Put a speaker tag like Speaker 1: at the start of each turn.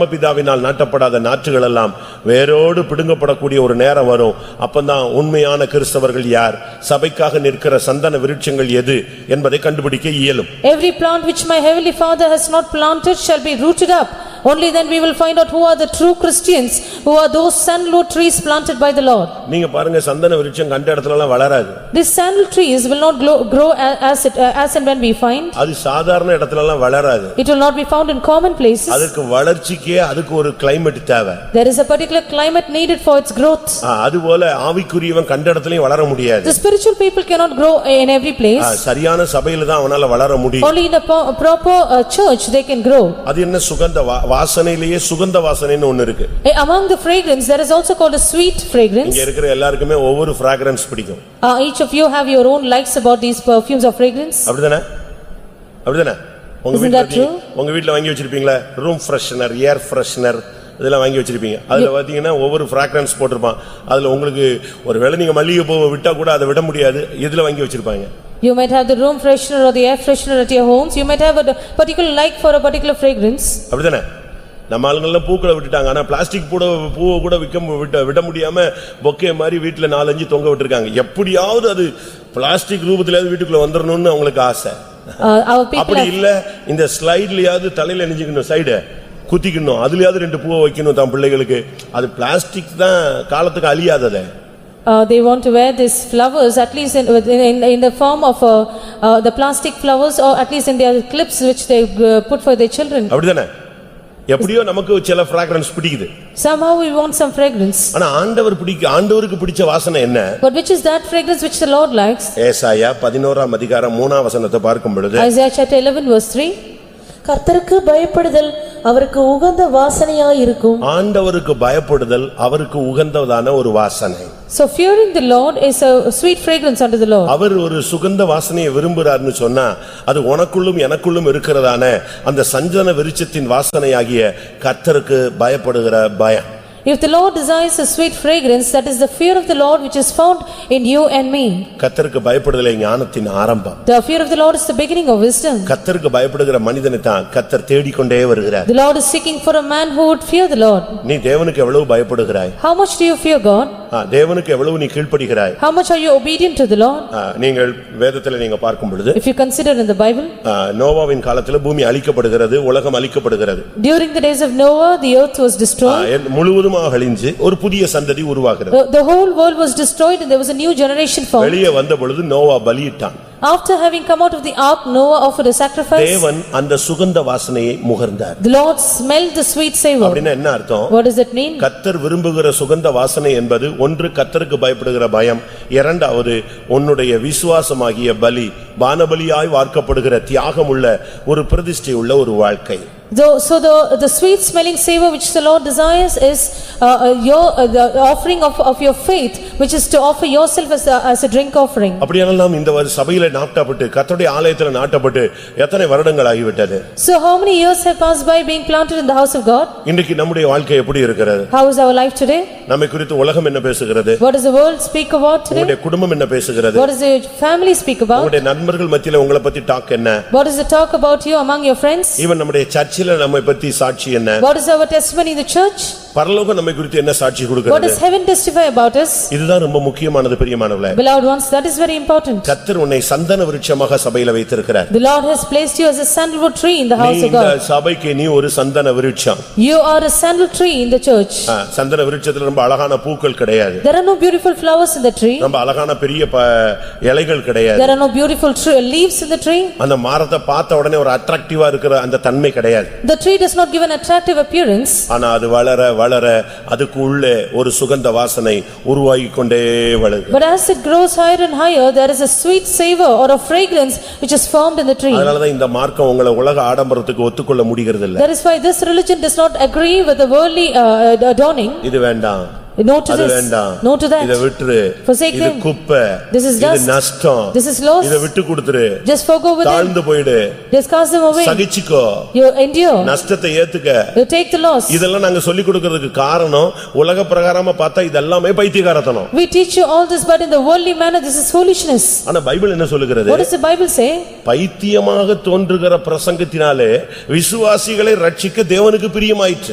Speaker 1: பரமபிதாவினால் நாட்டப்படாத நாற்றுகள் எல்லாம் வேரோடு பிடுங்கப்படக்கூடிய ஒரு நேரம் வரும் அப்பந்தான் உண்மையான கிறிஸ்தவர்கள் யார் சபைக்காக நிற்கிற சந்தன விருட்சங்கள் எது என்பதை கண்டுபிடிக்க இயலும்
Speaker 2: Every plant which my heavenly father has not planted shall be rooted up. Only then we will find out who are the true Christians, who are those sandalwood trees planted by the Lord.
Speaker 1: நீங்க பாருங்க சந்தன விருட்சம் கண்ட இடத்துல எல்லாம் வளராது
Speaker 2: These sandal trees will not grow- grow a- as it- uh, as and when we find.
Speaker 1: அது சாதாரண இடத்துல எல்லாம் வளராது
Speaker 2: It will not be found in common places.
Speaker 1: அதுக்கு வளர்ச்சிக்கே அதுக்கு ஒரு கிளைமேட் தேவை
Speaker 2: There is a particular climate needed for its growth.
Speaker 1: ஆ, அதுபோல ஆவிக்குரியவன் கண்ட இடத்துலயும் வளர முடியாது
Speaker 2: The spiritual people cannot grow in every
Speaker 1: ah,
Speaker 2: place.
Speaker 1: சரியான சபையில தான் அவனால வளர முடியும்
Speaker 2: Only in a po- proper uh, church they can grow.
Speaker 1: அது என்ன சுகந்த வா- வாசனையிலேயே சுகந்த வாசனைன்னு ஒண்ணு இருக்கு
Speaker 2: Eh, Among the fragrance, there is also called a sweet fragrance.
Speaker 1: இங்க இருக்கிற எல்லாருக்குமே ஒவ்வொரு fragrance பிடிக்கும்
Speaker 2: Uh, Each of you have your own likes about these perfumes or fragrance.
Speaker 1: அப்படிதானே அப்படிதானே உங்க
Speaker 2: Isn't
Speaker 1: வீட்டுல
Speaker 2: that true?
Speaker 1: பாத்தீங்க- உங்க வீட்டுல வாங்கி வச்சிருப்பீங்களா ரூம் ஃப்ரெஷ்னர் ஏர் ஃப்ரெஷ்னர் இதெல்லாம் வாங்கி வச்சிருப்பீங்க அதுல பாத்தீங்கன்னா ஒவ்வொரு fragrance போட்டிருப்பான் அதுல உங்களுக்கு ஒருவேளை நீங்க மல்லிகை பூவை விட்டா கூட அதை விட முடியாது இதுல வாங்கி வச்சிருப்பாங்க
Speaker 2: You might have the room freshener or the air freshener at your homes. You might have a particular like for a particular fragrance.
Speaker 1: அப்படிதானே நம்ம ஆளுங்கெல்லாம் பூக்களை விட்டுட்டாங்க ஆனா பிளாஸ்டிக் பூட பூவை கூட விக்க மு- விட்ட விட முடியாம பொக்கே மாதிரி வீட்டுல நாலஞ்சு தொங்க விட்டுருக்காங்க எப்படியாவது அது பிளாஸ்டிக் ரூபத்திலயாவது வீட்டுக்குள்ள வந்துடணும்னு அவங்களுக்கு ஆசை
Speaker 2: Uh, Our people
Speaker 1: அப்படி
Speaker 2: have
Speaker 1: இல்ல இந்த ஸ்லைட்லயாவது தலையில நினைஞ்சுக்கணும் சைடு குத்திக்கணும் அதுலயாவது ரெண்டு பூவை வைக்கணும் தான் பிள்ளைகளுக்கு அது பிளாஸ்டிக் தான் காலத்துக்கு அழியாததே
Speaker 2: Uh, They want to wear these flowers at least in within- in in the form of uh, uh, the plastic flowers or at least in their clips which they uh, put for their children.
Speaker 1: அப்படிதானே எப்படியோ நமக்கு சில fragrance பிடிக்குது
Speaker 2: Somehow we want some fragrance.
Speaker 1: ஆனா ஆண்டவர் பிடிக்க ஆண்டவருக்கு பிடிச்ச வாசனை என்ன
Speaker 2: But which is that fragrance which the Lord likes?
Speaker 1: ஏசாயா பதினோராம் அதிகாரம் மூணாம் வசனத்தை பார்க்கும் பொழுது
Speaker 2: Isaiah chapter 11 verse 3.
Speaker 3: கர்த்தருக்கு பயப்படுதல் அவருக்கு உகந்த வாசனையாயிருக்கும்
Speaker 1: ஆண்டவருக்கு பயப்படுதல் அவருக்கு உகந்ததான ஒரு வாசனை
Speaker 2: So fearing the Lord is a sweet fragrance unto the Lord.
Speaker 1: அவர் ஒரு சுகந்த வாசனையை விரும்புறார்னு சொன்னா அது உனக்குள்ளும் எனக்குள்ளும் இருக்கிறதான அந்த சஞ்சன விருட்சத்தின் வாசனையாகிய கர்த்தருக்கு பயப்படுகிற பயம்
Speaker 2: If the Lord desires a sweet fragrance, that is the fear of the Lord which is found in you and me.
Speaker 1: கர்த்தருக்கு பயப்படுதலை ஞானத்தின் ஆரம்பம்
Speaker 2: The fear of the Lord is the beginning of wisdom.
Speaker 1: கர்த்தருக்கு பயப்படுகிற மனிதனை தான் கர்த்தர் தேடிக்கொண்டே வருகிறார்
Speaker 2: The Lord is seeking for a man who would fear the Lord.
Speaker 1: நீ தேவனுக்கு எவ்வளவு பயப்படுகிறாய்
Speaker 2: How much do you fear God?
Speaker 1: ஆ, தேவனுக்கு எவ்வளவு நீ கீழ்ப்படிகிறாய்
Speaker 2: How much are you obedient to the Lord?
Speaker 1: ஆ, நீங்கள் வேதத்தில் நீங்க பார்க்கும் பொழுது
Speaker 2: If you consider in the Bible,
Speaker 1: ஆ, நோவாவின் காலத்தில் பூமி அழிக்கப்படுகிறது உலகம் அழிக்கப்படுகிறது
Speaker 2: during the days of Noah, the earth was
Speaker 1: ஆ,
Speaker 2: destroyed. Uh,
Speaker 1: எல்- முழுவதுமாக அழிஞ்சு ஒரு புதிய சந்ததி உருவாகிறது
Speaker 2: The the whole world was destroyed and there was a new generation formed.
Speaker 1: வெளியே வந்த பொழுது Noah பலியிட்டான்
Speaker 2: After having come out of the ark, Noah offered a sacrifice.
Speaker 1: தேவன் அந்த சுகந்த வாசனையை முகர்ந்தார்
Speaker 2: The Lord smelled the sweet savor.
Speaker 1: அப்படின்னா என்ன அர்த்தம்
Speaker 2: What does it mean?
Speaker 1: கத்தர் விரும்புகிற சுகந்த வாசனை என்பது ஒன்று கத்தருக்கு பயப்படுகிற பயம் இரண்டாவது உன்னுடைய விசுவாசமாகிய பலி பானபலியாய் வார்க்கப்படுகிற தியாகமுள்ள ஒரு பிரதிஷ்டையுள்ள ஒரு வாழ்க்கை
Speaker 2: Though- So the, the sweet smelling savor which the Lord desires is uh, uh, your, uh, the offering of, of your faith, which is to offer yourself as a, as a drink offering.
Speaker 1: அப்படியானால் நாம் இந்த வரு- சபையில நாட்டப்பட்டு கத்தருடைய ஆலயத்துல நாட்டப்பட்டு எத்தனை வருடங்கள் ஆகிவிட்டது
Speaker 2: So how many years have passed by being planted in the house of God?
Speaker 1: இன்றைக்கு நம்முடைய வாழ்க்கை எப்படி இருக்கிறது
Speaker 2: How is our life today?
Speaker 1: நம்மை குறித்து உலகம் என்ன பேசுகிறது
Speaker 2: What does the world speak about today?
Speaker 1: உங்களுடைய குடும்பம் என்ன பேசுகிறது
Speaker 2: What does your family speak about?
Speaker 1: உங்களுடைய நண்பர்கள் மத்தியில உங்களை பத்தி டாக் என்ன
Speaker 2: What is the talk about you among your friends?
Speaker 1: இவன் நம்முடைய சர்ச்சில நம்மை பத்தி சாட்சி என்ன
Speaker 2: What is our testimony in the church?
Speaker 1: பரலோகம் நம்மை குறித்து என்ன சாட்சி
Speaker 2: What
Speaker 1: கொடுக்கிறது
Speaker 2: does heaven testify about us?
Speaker 1: இதுதான் ரொம்ப முக்கியமானது பெரியமானவளே
Speaker 2: Beloved ones, that is very important.
Speaker 1: கத்தர் உன்னை சந்தன விருட்சமாக சபையில வைத்திருக்கிறார்
Speaker 2: The Lord has placed you as a sandalwood tree in the
Speaker 1: நீ
Speaker 2: house of
Speaker 1: இந்த
Speaker 2: God.
Speaker 1: சபைக்கு நீ ஒரு சந்தன விருட்சம்
Speaker 2: You are a sandal tree in the church.
Speaker 1: ஆ, சந்தன விருட்சத்துல ரொம்ப அழகான பூக்கள் கிடையாது
Speaker 2: There are no beautiful flowers in the tree.
Speaker 1: ரொம்ப அழகான பெரிய ப- இலைகள் கிடையாது
Speaker 2: There are no beautiful tr- leaves in the tree.
Speaker 1: அந்த மரத்தை பார்த்த உடனே ஒரு அட்ராக்டிவா இருக்கிற அந்த தன்மை கிடையாது
Speaker 2: The tree does not give an attractive appearance.
Speaker 1: ஆனா அது வளர வளர அதுக்கு உள்ளே ஒரு சுகந்த வாசனை உருவாகி கொண்டே வளருது
Speaker 2: But as it grows higher and higher, there is a sweet savor or a fragrance which is formed in the tree.
Speaker 1: அதனாலதான் இந்த மார்க்கம் உங்களை உலக ஆடம்பரத்துக்கு ஒத்துக்கொள்ள முடிகிறது இல்ல
Speaker 2: That is why this religion does not agree with the worldly uh, adorning.
Speaker 1: இது வேண்டாம்
Speaker 2: No to
Speaker 1: அது
Speaker 2: this,
Speaker 1: வேண்டாம்
Speaker 2: no to
Speaker 1: இத
Speaker 2: that.
Speaker 1: விட்டுரு
Speaker 2: Forsake
Speaker 1: இது
Speaker 2: them.
Speaker 1: குப்பை
Speaker 2: This is
Speaker 1: இது
Speaker 2: dust.
Speaker 1: நஷ்டம்
Speaker 2: This is loss.
Speaker 1: இத விட்டு கொடுத்துரு
Speaker 2: Just forego with them.
Speaker 1: தாழ்ந்து போயிடு
Speaker 2: Just cast them away.
Speaker 1: சகிச்சுக்கோ
Speaker 2: You endure.
Speaker 1: நஷ்டத்தை ஏத்துக்க
Speaker 2: You take the loss.
Speaker 1: இதெல்லாம் நாங்க சொல்லிக் கொடுக்கிறதுக்கு காரணம் உலக பிரகாரமா பார்த்தா இதெல்லாமே பைத்தியக்காரத்தனம்
Speaker 2: We teach you all this, but in the worldly manner, this is foolishness.
Speaker 1: ஆனா பைபிள் என்ன சொல்லுகிறது
Speaker 2: What does the Bible say?
Speaker 1: பைத்தியமாக தோன்றுகிற பிரசங்கத்தினாலே விசுவாசிகளை ரட்சிக்க தேவனுக்கு பிரியமாயிற்று